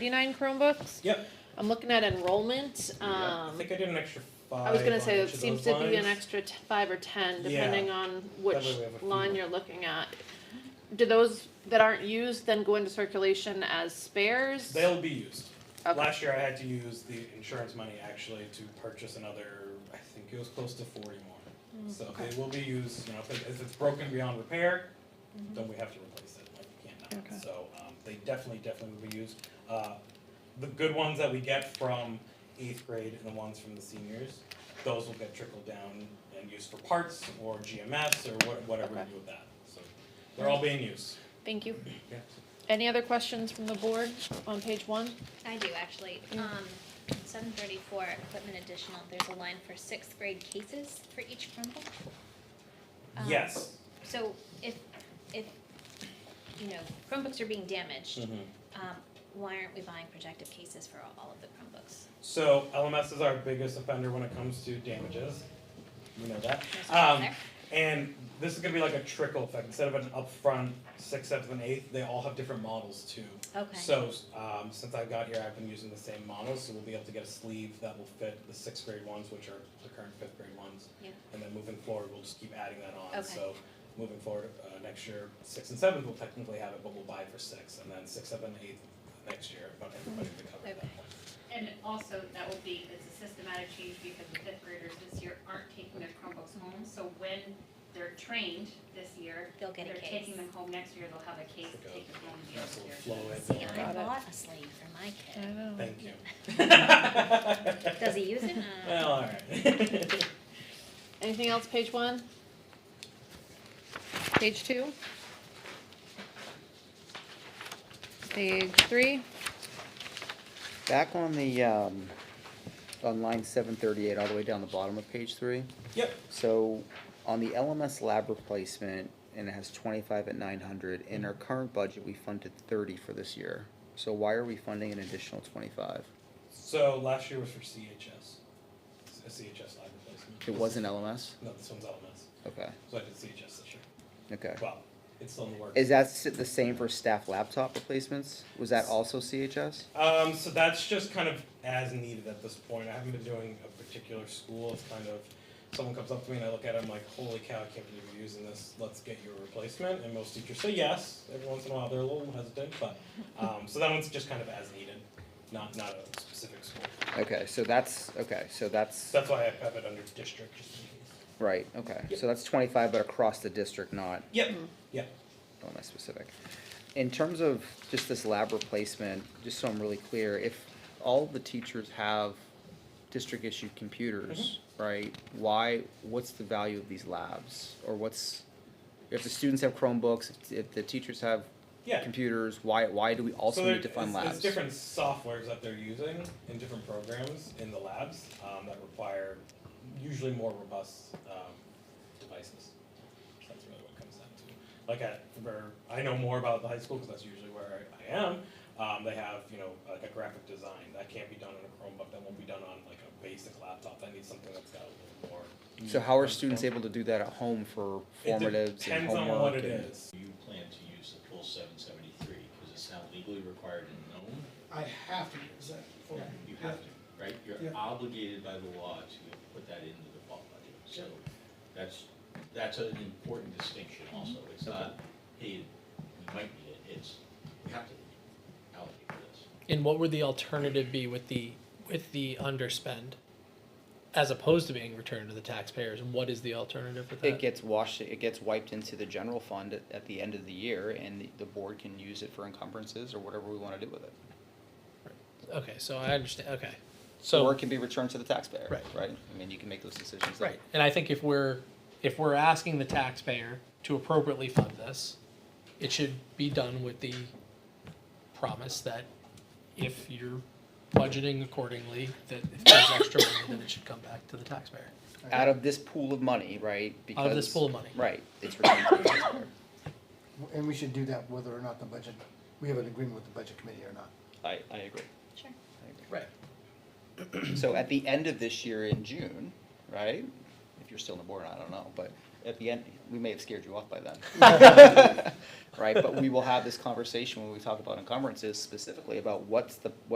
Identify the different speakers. Speaker 1: 39 Chromebooks.
Speaker 2: Yep.
Speaker 1: I'm looking at enrollment.
Speaker 2: Yeah, I
Speaker 1: Um,
Speaker 2: think I did an extra five.
Speaker 1: I was gonna
Speaker 2: on
Speaker 1: say, it
Speaker 2: each of
Speaker 1: seems to
Speaker 2: those
Speaker 1: be an
Speaker 2: lines.
Speaker 1: extra t- five or ten, depending on
Speaker 2: That way
Speaker 1: which
Speaker 2: we have a few
Speaker 1: line
Speaker 2: more.
Speaker 1: you're looking at. Do those that aren't used then go into circulation as spares?
Speaker 2: They'll be used.
Speaker 1: Okay.
Speaker 2: Last year I had to use the insurance money actually to purchase another. I think it was close to forty more. so
Speaker 1: Mm. okay.
Speaker 2: they will be used. You know, if, it, if it's broken beyond repair, then we have to replace it. Like we can't not.
Speaker 1: Mm-hmm. Okay.
Speaker 2: So um, they definitely, definitely will be used. Uh, the good ones that we get from eighth grade and the ones from the seniors, those will get trickled down and used for parts or GMS or what, whatever
Speaker 1: Okay.
Speaker 2: you do with that. So they're all being used.
Speaker 1: Thank you.
Speaker 2: Yeah.
Speaker 1: Any other questions from the board on page one?
Speaker 3: I do actually.
Speaker 1: Yeah.
Speaker 3: Um, seven thirty-four, equipment additional, there's a line for sixth grade cases for each Chromebook. Um,
Speaker 2: yes.
Speaker 3: So if, if, you know, Chromebooks are being damaged,
Speaker 2: Mm-hmm.
Speaker 3: um, why aren't we buying protective cases for all- all of the Chromebooks?
Speaker 2: So LMS is our biggest offender when it comes to damages. We know that.
Speaker 3: There's one
Speaker 2: Um,
Speaker 3: there.
Speaker 2: and this is gonna be like a trickle effect. Instead of an upfront sixth, seventh, and eighth, they all have different models too.
Speaker 3: Okay.
Speaker 2: So um, since I got here, I've been using the same model, so we'll be able to get a sleeve that will fit the sixth grade ones, which are the current fifth grade ones.
Speaker 3: Yeah.
Speaker 2: And then moving forward, we'll just keep adding that on.
Speaker 3: Okay.
Speaker 2: So moving forward, uh, next year, sixth and seventh will technically have it, but we'll buy it for six, and then sixth, seventh, and eighth next year, but everybody will be covered at
Speaker 3: Okay.
Speaker 2: that point.
Speaker 4: And also, that will be, it's a systematic change because the fifth graders this year aren't taking their Chromebooks home, so when they're trained this year,
Speaker 3: They'll get a
Speaker 4: they're
Speaker 3: case.
Speaker 4: taking them home next year, they'll have a case to take them home the
Speaker 2: Nice little
Speaker 4: next year.
Speaker 2: flow in
Speaker 3: See,
Speaker 2: there.
Speaker 3: I
Speaker 1: Got it.
Speaker 3: bought a sleeve for my kid.
Speaker 1: know.
Speaker 2: Thank you.
Speaker 3: Does he use it? Uh,
Speaker 2: Well, all right.
Speaker 1: Anything else, page one? Page two? Page three?
Speaker 5: Back on the, um, on line seven thirty-eight, all the way down the bottom of page three.
Speaker 2: Yep.
Speaker 5: So on the LMS lab replacement, and it has twenty-five at nine hundred, in our current budget, we funded thirty for this year. So why are we funding an additional twenty-five?
Speaker 2: So last year was for CHS, a CHS live replacement.
Speaker 5: It wasn't LMS?
Speaker 2: No, this one's LMS.
Speaker 5: Okay,
Speaker 2: So I did CHS this year.
Speaker 5: okay.
Speaker 2: Well, it's still in the works.
Speaker 5: Is that s- the same for staff laptop replacements? Was that also CHS?
Speaker 2: Um, so that's just kind of as needed at this point. I haven't been doing a particular school. It's kind of someone comes up to me and I look at it, I'm like, holy cow, I can't believe you're using this. Let's get you a replacement. And most teachers say yes. Every once in a while they're a little hesitant, but um, so that one's just kind of as needed, not not a specific school.
Speaker 5: Okay, so that's, okay, so that's,
Speaker 2: So that's why I have it under district just in case.
Speaker 5: right, okay. So that's twenty-five, but across the district, not
Speaker 2: Yep. Yep.
Speaker 5: not that specific. In terms of just this lab replacement, just so I'm really clear, if all the teachers have district issued computers,
Speaker 2: Mm-hmm.
Speaker 5: right? Why, what's the value of these labs? Or what's, if the students have Chromebooks, if- if the teachers have
Speaker 2: Yeah.
Speaker 5: computers, why, why do we also
Speaker 2: so there-
Speaker 5: need to fund
Speaker 2: it's-
Speaker 5: labs?
Speaker 2: It's different softwares that they're using in different programs in the labs um, that require usually more robust um, devices. So that's really what it comes down to. Like at where I know more about the high school because that's usually where I, I am. Um, they have you know like a graphic design that can't be done on a Chromebook. That won't be done on like a basic laptop. That needs something that's got a little more.
Speaker 5: So how are students able to do that at home for
Speaker 2: Mm-hmm. It
Speaker 5: formatives and
Speaker 2: depends
Speaker 5: homework?
Speaker 2: on what it
Speaker 5: and-
Speaker 2: is.
Speaker 6: You plan to use the full seven seventy-three, because it's now legally required and known,
Speaker 7: I have to use that for.
Speaker 6: you have to, right? You're
Speaker 7: Yeah.
Speaker 6: obligated by the law to put that into the fall budget, so that's, that's an important distinction also, it's not, hey, we might need it, it's, we have to allocate for this.
Speaker 8: And what would the alternative be with the with the underspend, as opposed to being returned to the taxpayers? What is the alternative with that?
Speaker 5: It gets washed, it gets wiped into the general fund at, at the end of the year, and the, the board can use it for encumbrances or whatever we wanna do with it.
Speaker 8: okay, so I understand. Okay, so
Speaker 5: Or it can be returned to the taxpayer,
Speaker 8: Right.
Speaker 5: right? I mean, you can make those decisions. then.
Speaker 8: right, and I think if we're if we're asking the taxpayer to appropriately fund this, it should be done with the promise that if you're budgeting accordingly, that if there's extra money, then it should come back to the taxpayer.
Speaker 5: Out of this pool of money, right?
Speaker 8: Out of this
Speaker 5: because-
Speaker 8: pool of money.
Speaker 5: Right, it's returned to the taxpayer.
Speaker 7: And we should do that whether or not the budget, we have an agreement with the budget committee or not.
Speaker 5: I, I agree.
Speaker 3: Sure.
Speaker 8: Right.
Speaker 5: So at the end of this year in June, right? If you're still on the board, I don't know, but at the end, we may have scared you off by then. Right, but we will have this conversation when we talk about encumbrances specifically about what's the,